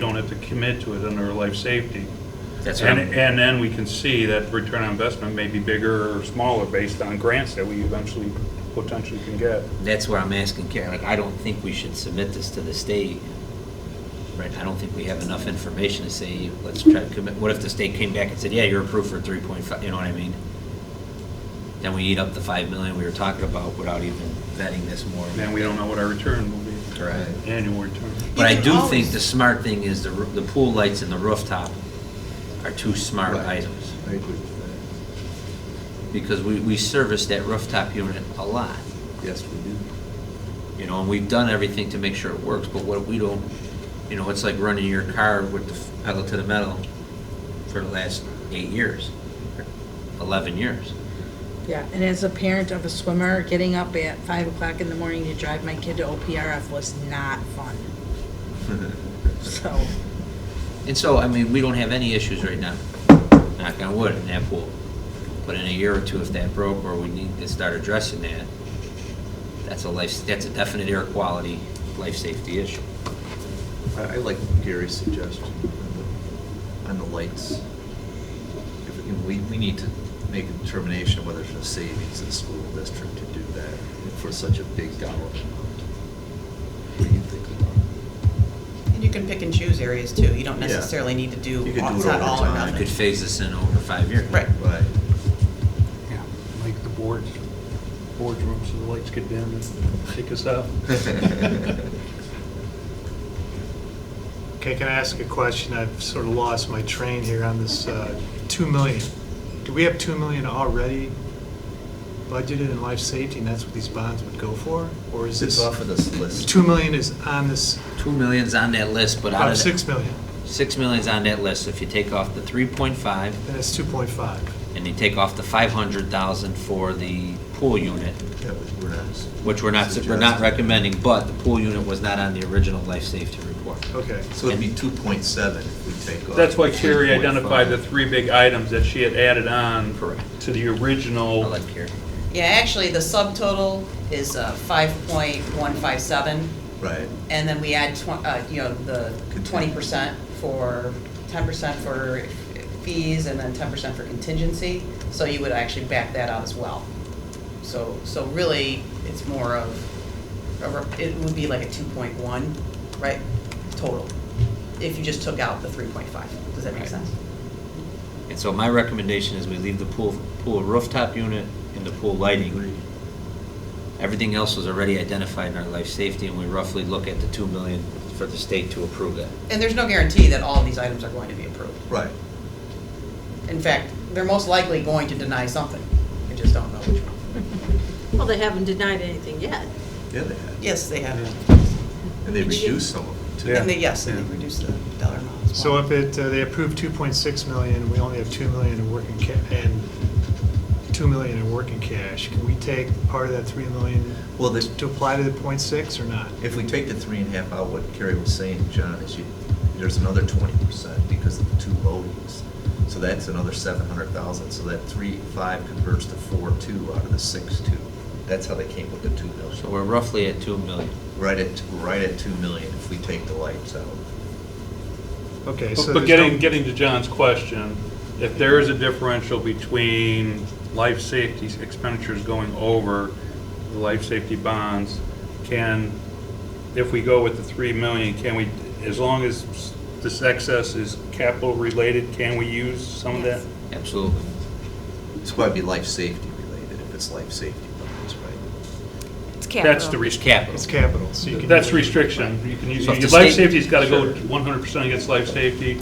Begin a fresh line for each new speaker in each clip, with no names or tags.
don't have to commit to it under life safety.
That's
And,
right.
and then we can see that return on investment may be bigger or smaller based on grants that we eventually potentially can get.
That's where I'm asking Karen, like, I don't think we should submit this to the state. Right, I don't think we have enough information to say, let's try to commit, what if the state came back and said, yeah, you're approved for three point five, you know what I mean? Then we eat up the five million we were talking about without even vetting this more.
Then we don't know what our return will be.
Correct.
Annual return.
But I
You
do
can
think
always-
the smart thing is the, roo- the pool lights and the rooftop are two smart
Right.
items.
I agree with
Because we, we service that rooftop unit a lot,
that. Yes, we do.
you know, and we've done everything to make sure it works, but what if we don't, you know, it's like running your car with the f- pedal to the metal for the last eight years, or eleven years.
Yeah, and as a parent of a swimmer, getting up at five o'clock in the morning to drive my kid to OPRF was not fun. So,
And so, I mean, we don't have any issues right now, knock on wood, in that pool. But in a year or two, if that broke or we need to start addressing that, that's a life, that's a definite air quality, life safety issue.
I, I like Gary's suggestion on the- on the lights. If we can, we, we need to make a determination whether it's a savings in the school district to do that for such a big dollar amount. What do you think?
And you can pick and choose areas too. You don't
Yeah.
necessarily need to do,
You could
all-
do
it's
it
not
over
all or
time.
I
nothing.
could phase this in over five years.
Right.
Right.
Yeah, like the boards, boardroom, so the lights get dim and kick us out.
Okay, can I ask a question? I've sort of lost my train here on this uh, 2 million. Do we have 2 million already budgeted in life safety, and that's what these bonds would go for? Or is
It's
this,
off of this list.
2 million is on this,
Two million's on that list, but out
about
of,
6
that-
million,
six million's on that list. If you take off the three point five
then it's 2.5.
and you take off the five hundred thousand for the pool unit,
Yeah, we- we're not.
which we're not, we're not
suggesting.
recommending, but the pool unit was not on the original life safety report.
Okay.
So it'd be two point seven if we take off.
That's why Carrie
3.5.
identified the three big items that she had added on
Correct.
to the
I'll
original.
let Carrie.
Yeah, actually, the subtotal is uh, 5.157,
Right.
and then we add, twen- uh, you know, the
Contingent.
20% for, 10% for fees, and then 10% for contingency, so you would actually back that out as well. So, so really, it's more of, a re- it would be like a 2.1, right, total, if you just took out the 3.5. Does that make
Right.
sense?
And so my recommendation is we leave the pool, pool rooftop unit and the pool lighting. Everything else was already identified in our life safety, and we roughly look at the two million for the state to approve that.
And there's no guarantee that all of these items are going to be approved.
Right.
In fact, they're most likely going to deny something. I just don't know which one.
Well, they haven't denied anything yet.
Yeah, they have.
Yes, they have.
And they reduced some of them too.
Yeah.
And they, yes, and
Yeah.
they reduced the dollar amount as
So
well.
if it, uh, they approve 2.6 million, we only have 2 million in working, ca- and 2 million in working cash, can we take part of that 3 million
Well, the-
to apply to the .6 or not?
If we take the three and a half out, what Kerry was saying, John, is you, there's another twenty percent because of the two loadings. So that's another seven hundred thousand, so that three, five converts to four, two out of the six, two. That's how they came with the two
So
million.
we're roughly at two million.
Right at, right at two million if we take the lights out.
Okay, so
But
there's
but
no-
getting, getting to John's question, if there is a differential between life safety expenditures going over the life safety bonds, can, if we go with the three million, can we, as long as this excess is capital related, can we use some of that?
Yes.
Absolutely.
It's gotta be life safety related, if it's life safety bonds, right?
It's capital.
That's the
It's
restriction.
capital.
It's capital, so you can.
That's restriction. You can use,
So if the
your life
state-
safety's gotta go
Sure.
one hundred percent against life safety,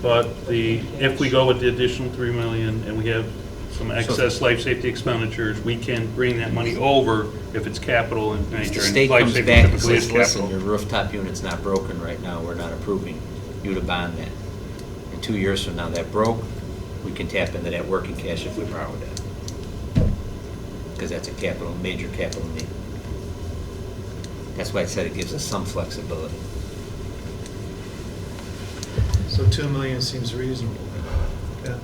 but the, if we go with the additional three million and we have some excess life safety expenditures, we can bring that money over if it's capital in
If
nature.
the
and
state
life
comes
safety
back and
typically is
says, listen, your
capital."
rooftop unit's not broken right now, we're not approving you to bond that. And two years from now, that broke, we can tap into that working cash if we borrow that. Because that's a capital, major capital need. That's why I said it gives us some flexibility.
So 2 million seems reasonable. Yeah.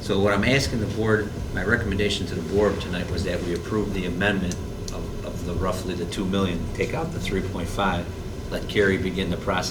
So what I'm asking the board, my recommendation to the board tonight was that we approve the amendment of, of the roughly the two million, take out the three point five, let Carrie begin the process